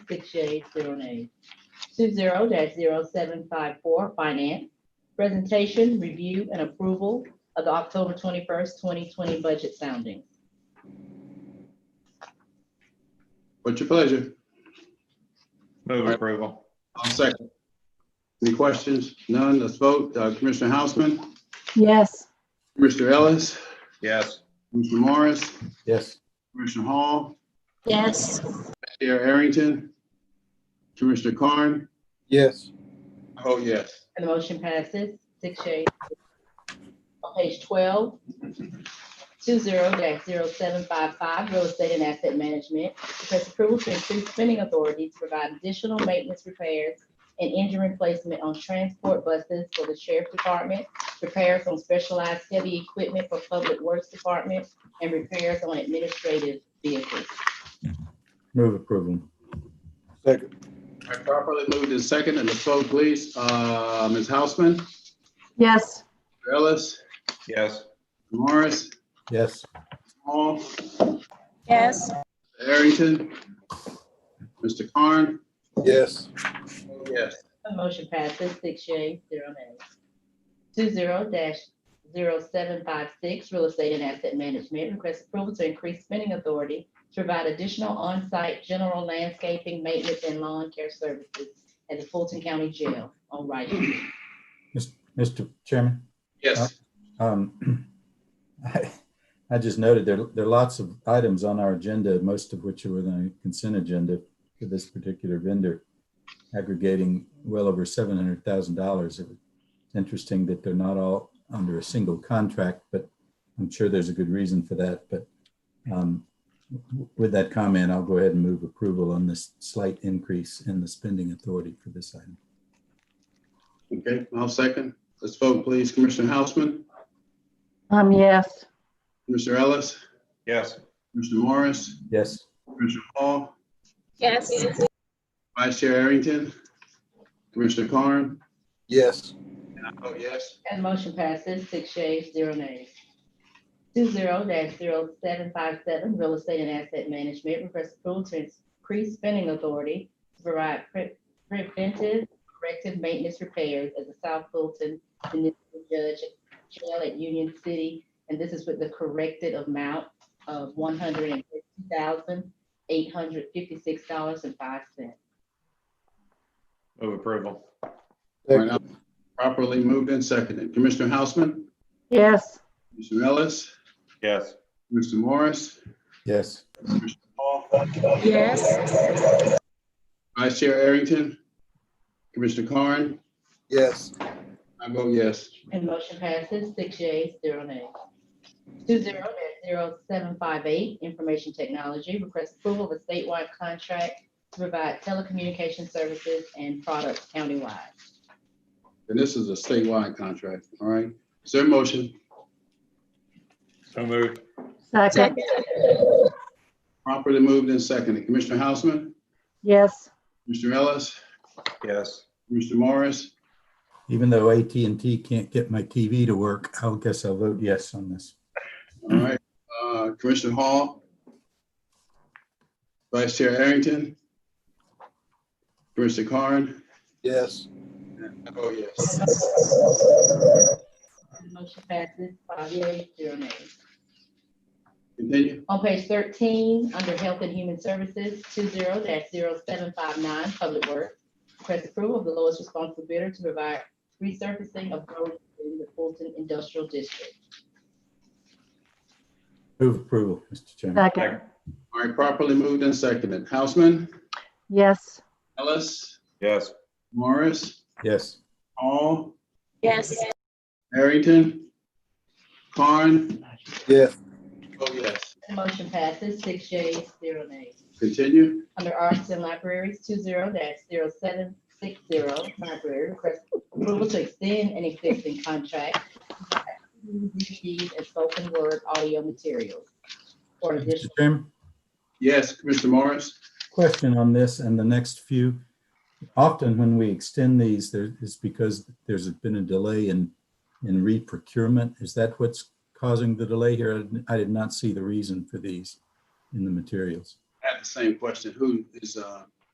six yeas, zero nays. Two zero dash zero seven five four, finance. Presentation, review, and approval of the October twenty-first, twenty twenty budget sounding. What's your pleasure? Move approval. I'll second. Any questions? None, let's vote. Uh, Commissioner Hausman, yes, Commissioner Ellis, Yes. Commissioner Morris, yes, Commissioner Hall, yes, Chair Arrington, Commissioner Carn. yes, I vote Oh, yes. And the motion passes six yeas. On page twelve, two zero dash zero seven five five, real estate and asset management. Request approval to increase spending authority to provide additional maintenance repairs and engine replacement on transport buses for the sheriff's department, repairs on specialized heavy equipment for public works department, and repairs on administrative vehicles. Move approval. second, All right, Properly moved in second, and let's vote, please. Uh, Ms. Hausman, yes, Commissioner Ellis, Yes. Morris, yes, Hall, yes, Arrington, Mr. Carn. yes, vote Yes. The motion passes six yeas, zero nays. Two zero dash zero seven five six, real estate and asset management, request approval to increase spending authority to provide additional on-site general landscaping, maintenance, and lawn care services at the Fulton County Jail on Rice Street. Mr. Chairman, Yes. um, I I just noted there, there are lots of items on our agenda, most of which are within a consent agenda for this particular vendor, aggregating well over $700,000. It was Interesting that they're not all under a single contract, but I'm sure there's a good reason for that. But um, w- with that comment, I'll go ahead and move approval on this slight increase in the spending authority for this item. Okay, I'll second. Let's vote, please. Commissioner Hausman, um, yes, Commissioner Ellis, Yes. Commissioner Morris, Yes. Commissioner Hall, yes, Vice Chair Arrington, Commissioner Carn. yes, And I vote yes. And motion passes six yeas, zero nays. Two zero dash zero seven five seven, real estate and asset management, request approval to increase spending authority to provide pre- preventive corrective maintenance repairs at the South Fulton Municipal Judge Jail at Union City. And this is with the corrected amount of one hundred and fifty thousand, eight hundred fifty-six dollars and five cents. Move approval. All right, now, Properly moved and seconded. Commissioner Hausman, yes, Commissioner Ellis, Yes. Commissioner Morris, Yes, yes, Vice Chair Arrington, Commissioner Carn. yes, I vote yes. And motion passes six yeas, zero nays. Two zero dash zero seven five eight, information technology, request approval of a statewide contract to provide telecommunication services and products countywide. And this is a statewide contract, all right? Is there a motion? So moved. second, second, Properly moved and seconded. Commissioner Hausman, yes, Commissioner Ellis, Yes. Commissioner Morris, even though at and T can't get my TV to work, I guess I'll vote yes on this. All right, uh, Commissioner Hall. Vice Chair Arrington. Commissioner Carn. yes, Oh, yes. Motion passes five yeas, zero nays. Continue. On page thirteen, under Health and Human Services, two zero dash zero seven five nine, Public Works. Request approval of the lowest responsible bidder to provide resurfacing of roads in the Fulton Industrial District. Move approval, Mr. Chairman. second, All right, properly moved and seconded. Houseman, yes, Ellis, Yes. Morris, Yes, Hall, yes, Arrington, Carn. yes, Oh, yes. The motion passes six yeas, zero nays. Continue. Under arts and libraries, two zero dash zero seven six zero, library request approval to extend an existing contract. DVDs and spoken word audio materials. For Mr. additional, Chairman, Yes, Commissioner Morris. question on this and the next few. Often when we extend these, there is because there's been a delay in, in re-procurement. Is that what's causing the delay here? I didn't- I did not see the reason for these in the materials. I had the same question. Who is, uh,